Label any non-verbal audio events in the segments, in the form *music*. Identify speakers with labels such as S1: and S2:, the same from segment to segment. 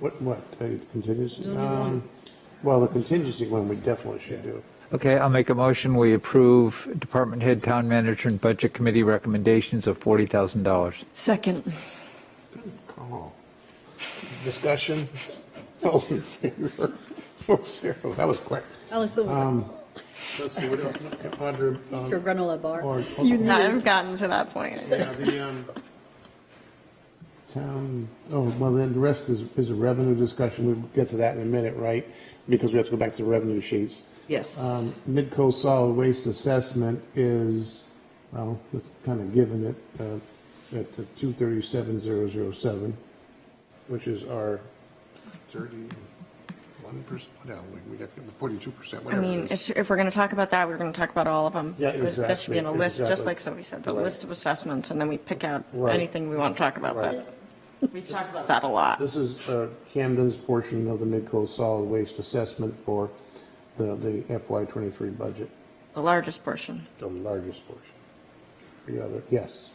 S1: What, what, uh, contingency? Um, Well, the contingency one, we definitely should do.
S2: Okay, I'll make a motion, we approve Department Head, Town Manager, and Budget Committee recommendations of $40,000.
S3: Second.
S1: Call. Discussion? *laughs* All in favor? *laughs* Four zero. That was quick.
S4: Alice,
S1: Um,
S4: the
S1: Let's see, what, Audra? um,
S4: your granola bar.
S1: or-
S5: *laughs* I've gotten to that point.
S1: Yeah, the, um, town, oh, well, then the rest is, is a revenue discussion. We'll get to that in a minute, right? Because we have to go back to the revenue sheets.
S3: Yes.
S1: Um, Midco solid waste assessment is, well, it's kind of given it, uh, at the two thirty-seven zero zero seven, which is our thirty-one percent, no, we, we have forty-two percent,
S5: I
S1: whatever
S5: mean,
S1: it is.
S5: it's- if we're going to talk about that, we're going to talk about all of them.
S1: Yeah,
S5: There should be in a
S1: exactly,
S5: list, just
S1: exactly.
S5: like Sophie said, the
S1: Right.
S5: list of assessments, and then we pick out
S1: Right.
S5: anything we want to talk about,
S1: Right.
S5: but we've talked about that a lot.
S1: This is uh, Camden's portion of the Midco solid waste assessment for the, the FY twenty-three budget,
S5: The largest portion.
S1: the largest portion. The other, yes.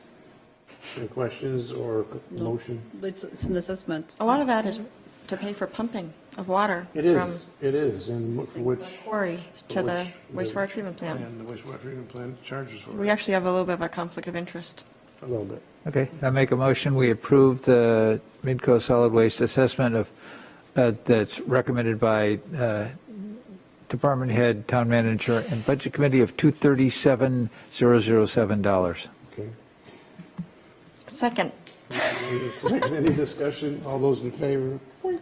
S1: Any questions or motion?
S4: It's, it's an assessment.
S5: A lot of that is to pay for pumping of water.
S1: It is, it is, and wh- for
S5: From
S1: which.
S5: the quarry to the
S1: which-
S5: wastewater treatment plant.
S1: And the wastewater treatment plant charges for
S5: We
S1: it,
S5: actually have a little bit of a conflict of interest.
S1: a little bit.
S2: Okay, I make a motion, we approve the Midco Solid Waste Assessment of, uh, that's recommended by uh, Department Head, Town Manager, and Budget Committee of $237,007.
S1: Okay.
S5: Second,
S1: Any second, any discussion? All those in favor? Boink.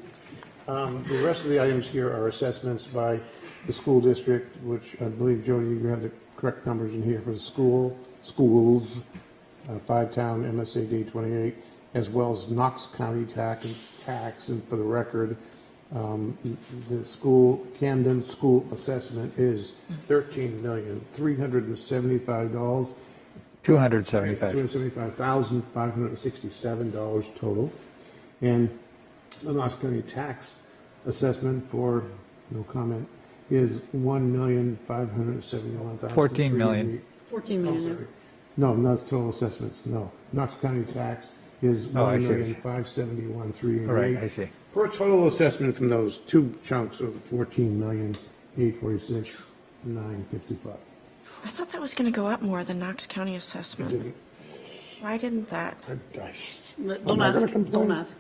S1: Um, The rest of the items here are assessments by the school district, which I believe, Jody, you have the correct numbers in here for the school, schools, uh, five-town MSAD 28, as well as Knox County tax, tax, and for the record, um, the school, Camden school assessment is $13,375.
S2: $275.
S1: $275,567 total. And the Knox County tax assessment for, no comment, is $1,571,000.
S2: 14 million.
S4: 14 million.
S1: No, not total assessments, no. Knox County tax is
S2: Oh, I see.
S1: $1,571,388.
S2: All right, I see.
S1: For a total assessment from those two chunks of $14,846,955.
S5: I thought that was going to go up more than Knox County assessment.
S1: Didn't-
S5: Why didn't that?
S1: I- I- I'm
S4: Don't
S1: not gonna
S4: ask,
S1: complain.
S4: don't ask.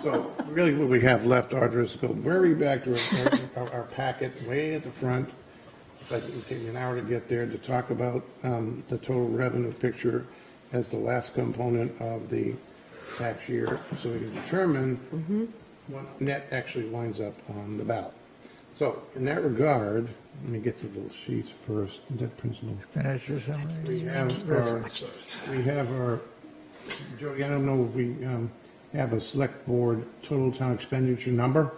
S1: So really what we have left, Audra, is go very back to our- our, our packet way at the front. It's like it would take me an hour to get there to talk about um, the total revenue picture as the last component of the tax year. So we can determine what net actually winds up on the ballot. So in that regard, let me get to the sheets first, debt principal.
S2: Manager summary.
S1: We have our, we have our, Jody, I don't know if we um, have a select board total town expenditure number.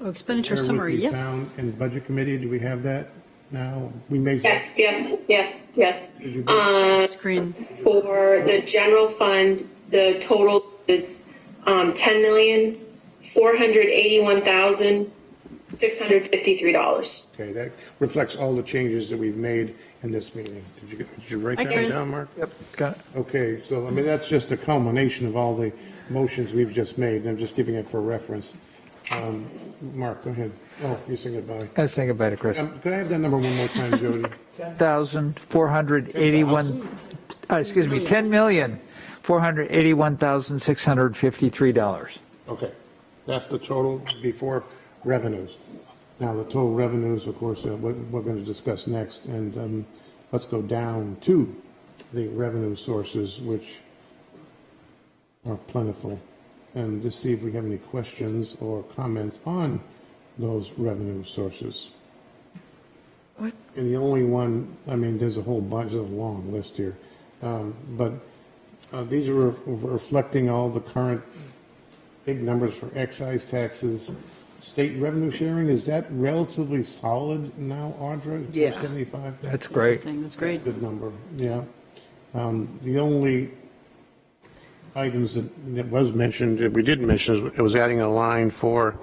S4: Oh, Expenditure
S1: Share with
S4: summary,
S1: the
S4: yes.
S1: town And budget committee, do we have that now? We may.
S6: Yes, yes, yes, yes.
S1: Did you-
S4: Screen.
S6: For the general fund, the total is um, ten million, four hundred eighty-one thousand, six hundred fifty-three dollars.
S1: Okay, that reflects all the changes that we've made in this meeting. Did you, did you write
S4: I
S1: that
S4: guess-
S1: down, Mark?
S2: Yep, got it.
S1: Okay, so, I mean, that's just a culmination of all the motions we've just made, and I'm just giving it for reference. Um, Mark, go ahead. Oh, you say goodbye.
S2: I was thinking about it, Chris.
S1: Um, Could I have that number one more time, Jody?
S2: 10,481, uh, excuse me, $10,481,653.
S1: Okay, that's the total before revenues. Now, the total revenues, of course, uh, we're, we're going to discuss next, and um, let's go down to the revenue sources, which are plentiful, and to see if we have any questions or comments on those revenue sources.
S5: What?
S1: And the only one, I mean, there's a whole bunch, there's a long list here, um, but uh, these are reflecting all the current big numbers for excise taxes. State revenue sharing, is that relatively solid now, Audra?
S3: Yeah.
S1: 75?
S2: That's great.
S4: Interesting, That's great.
S1: Good number, yeah. Um, The only items that that was mentioned, that we didn't mention, is it was adding a line for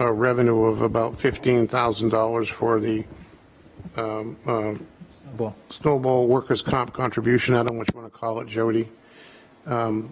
S1: a revenue of about $15,000 for the uh,
S2: Well,
S1: snowball workers' comp contribution, I don't know what you want to call it, Jody. Um,